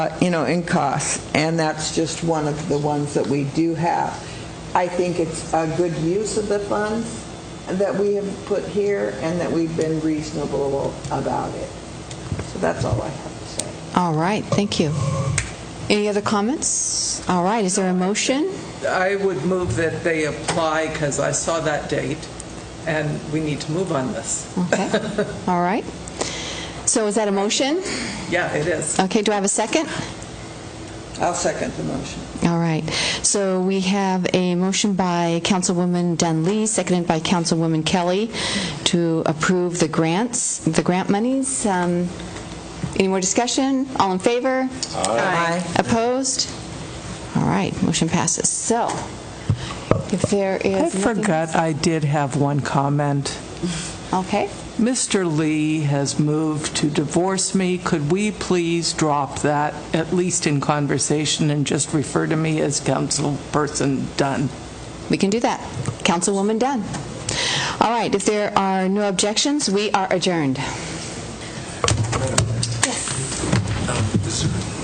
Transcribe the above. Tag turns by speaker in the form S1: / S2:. S1: uh, you know, in costs, and that's just one of the ones that we do have. I think it's a good use of the funds that we have put here and that we've been reasonable about it. So that's all I have to say.
S2: All right, thank you. Any other comments? All right, is there a motion?
S3: I would move that they apply because I saw that date and we need to move on this.
S2: Okay, all right. So is that a motion?
S3: Yeah, it is.
S2: Okay, do I have a second?
S1: I'll second the motion.
S2: All right, so we have a motion by Councilwoman Dunley, seconded by Councilwoman Kelly, to approve the grants, the grant monies. Um, Any more discussion? All in favor? Aye. Opposed? All right, motion passes. So, if there
S3: I
S2: is nothing-
S3: forgot I did have one comment.
S2: Okay,
S3: Mr. Lee has moved to divorce me. Could we please drop that, at least in conversation, and just refer to me as councilperson Dunn?
S2: we can do that. Councilwoman Dunn. All right, if there are no objections, we are adjourned.